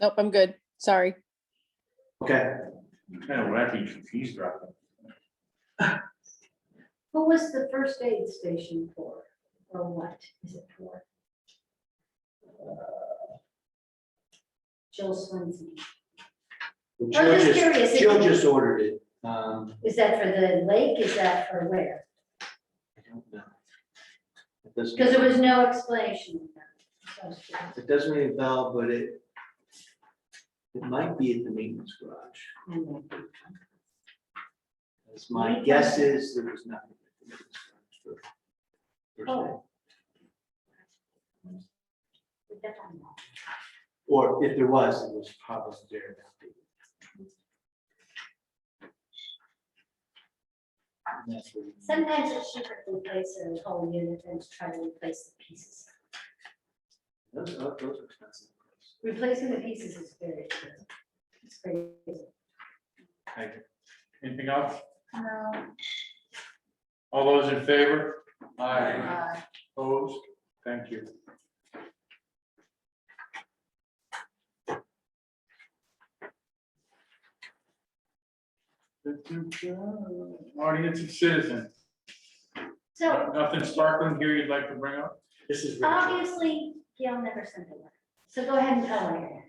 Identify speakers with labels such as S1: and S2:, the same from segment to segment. S1: Nope, I'm good. Sorry.
S2: Okay,
S3: Kind of wacky, confused right now.
S4: Who was the first aid station for, or what is it for? Jill Swansea,
S2: well,
S4: I'm
S2: Jill
S4: just
S2: just,
S4: curious.
S2: Jill just ordered it. Um,
S4: is that for the lake, is that for where?
S2: I don't know. It doesn't,
S4: Because there was no explanation. of that. So I was curious.
S2: it doesn't ring a bell, but it it might be at the maintenance garage.
S4: And then-
S2: As my guess is, there was nothing. at the maintenance garage for Thursday.
S4: Oh. But that I know.
S2: Or if there was, it was probably there. that day. And that's where you-
S4: Sometimes it's cheaper to replace a whole unit than to try to replace the pieces.
S2: Those, those those are expensive.
S4: Replacing the pieces is very expensive. It's crazy.
S3: Anything else?
S4: No.
S3: All those in favor? Aye. Opposed? Thank you. Audience of citizens, uh,
S4: So
S3: nothing sparkling here you'd like to bring up?
S2: This is. really
S4: Um,
S2: cool.
S4: obviously, Gail never sent it. So go ahead and tell her.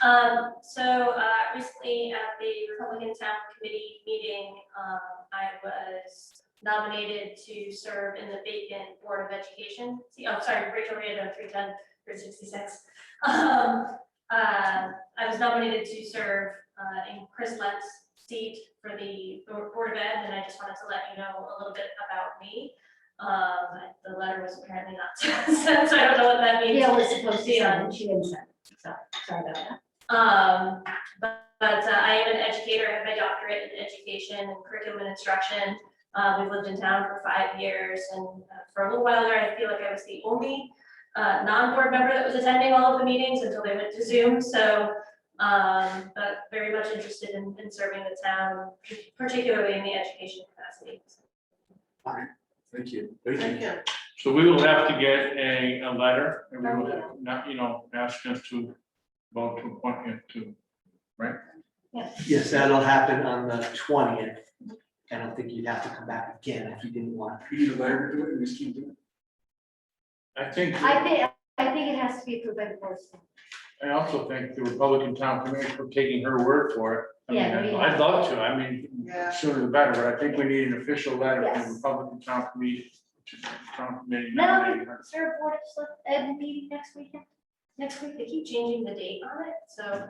S5: Um, so, uh, recently at the Republican Town Committee meeting, um, I was nominated to serve in the vacant Board of Education. See, I'm sorry, Rachel Rando, three ten, three sixty-six. Um, uh, I was nominated to serve, uh, in Chris Lent's seat for the Board of Ed, and I just wanted to let you know a little bit about me. Um, the letter was apparently not sent, so I don't know what that means.
S4: Gail was supposed to
S5: Yeah.
S4: send, it, she didn't send. it. So, sorry about that.
S5: Um, but, but uh, I am an educator, I have my doctorate in education and curriculum and instruction. Uh, we've lived in town for five years and uh, for a little while there, I feel like I was the only uh, non-board member that was attending all of the meetings until they went to Zoom, so um, but very much interested in, in serving the town, particularly in the education capacity.
S2: Thank you. Thank you.
S3: So we will have to get a, a letter, and
S4: Oh,
S3: we will have, not, you know, ask us to vote to appoint him to.
S2: Yes, that'll happen on the twentieth. I don't think you'd have to come back again if you didn't want.
S3: Be the letter to it, we just keep doing it. I think.
S4: I think, I think it has to be approved by the board.
S3: I also thank the Republican Town Committee for taking her word for it. I mean,
S4: Yeah, we-
S3: I'd love to, I mean, sooner the better, but I think we need an official letter from the
S4: Yes.
S3: Republican Town Committee. to the Town Committee
S4: No,
S3: nominating her.
S4: is there a board of select, ed meeting next weekend? Next week,
S5: They keep changing the date on it, so.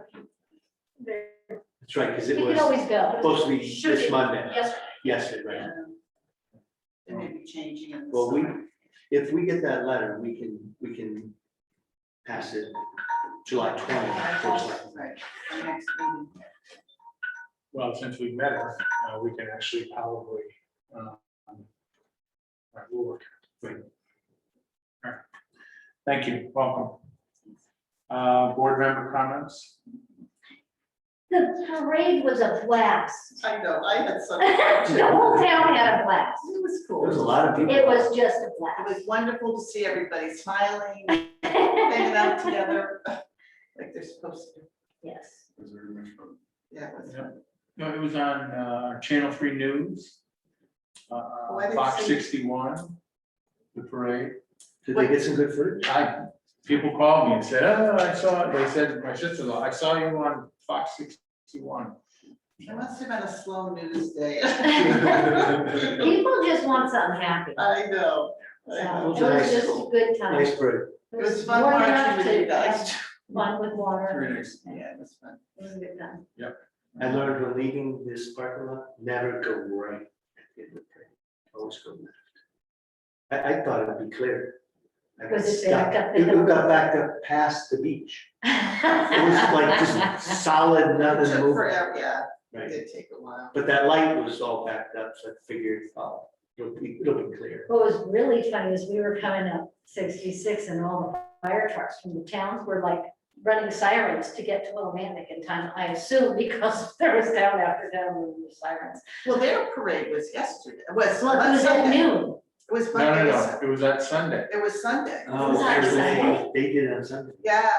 S5: there-
S2: That's right, because
S4: we
S2: it
S4: can
S2: was
S4: always go.
S2: supposed to be
S5: Should
S2: this
S5: be.
S2: Monday.
S5: Yes,
S2: Yesterday, right?
S6: They may be changing in the
S2: Well, we-
S6: summer.
S2: If we get that letter, we can, we can pass it July twentieth.
S6: Right, the next meeting.
S3: Well, since we met her, uh, we can actually probably. uh, um, all right, we'll work it. Great. All right. Thank you, welcome. Uh, Board member comments?
S4: The parade was a blast.
S6: I know, I had some.
S4: The whole town had a blast.
S6: It was cool.
S2: There's a lot of people.
S4: It was just a
S6: It
S4: blast.
S6: was wonderful to see everybody smiling, hanging out together, like they're supposed to.
S4: Yes.
S6: Yeah, it was.
S3: Yeah. No, it was on uh, Channel Three News.
S6: Oh, I
S3: uh,
S6: didn't
S3: Fox
S6: see it.
S3: sixty-one, the parade.
S2: Did they get some good footage?
S3: I, people called me and said, oh, I saw, it." they said, my sister-in-law, I saw you on Fox sixty-one.
S6: It must have been a slow news day.
S4: People just want something happy.
S6: I know. I
S4: So
S6: know.
S4: it was just a good time.
S2: Nice bird.
S6: It was fun watching with you guys.
S4: Fun with water.
S6: Yeah, it was fun.
S4: It was a good time.
S2: I learned when leaving this parking lot, never go right. at the end of the train. Always go left. I, I thought it would be clear. I got
S4: Was it
S2: stuck.
S4: back up the
S2: It
S4: hill?
S2: got back up past the beach. It was like just solid,
S6: It
S2: nothing
S6: took
S2: moving.
S6: forever, Yeah, it
S2: Right.
S6: did take a while.
S2: But that light was all backed up, so I figured, oh, it'll be, it'll be clear.
S4: What was really funny is we were coming up sixty-six and all the fire trucks from the towns were like running sirens to get to Willimantic in time, I assume, because there was down after down with the sirens.
S6: Well, their parade was yesterday, was
S4: Well, it was at
S6: Sunday. It
S4: noon.
S6: was
S3: No, no,
S6: Monday,
S3: no, it was that Sunday.
S6: it was Sunday.
S2: Oh,
S4: It was on
S2: actually,
S4: Sunday.
S2: They did it on Sunday.
S6: Yeah.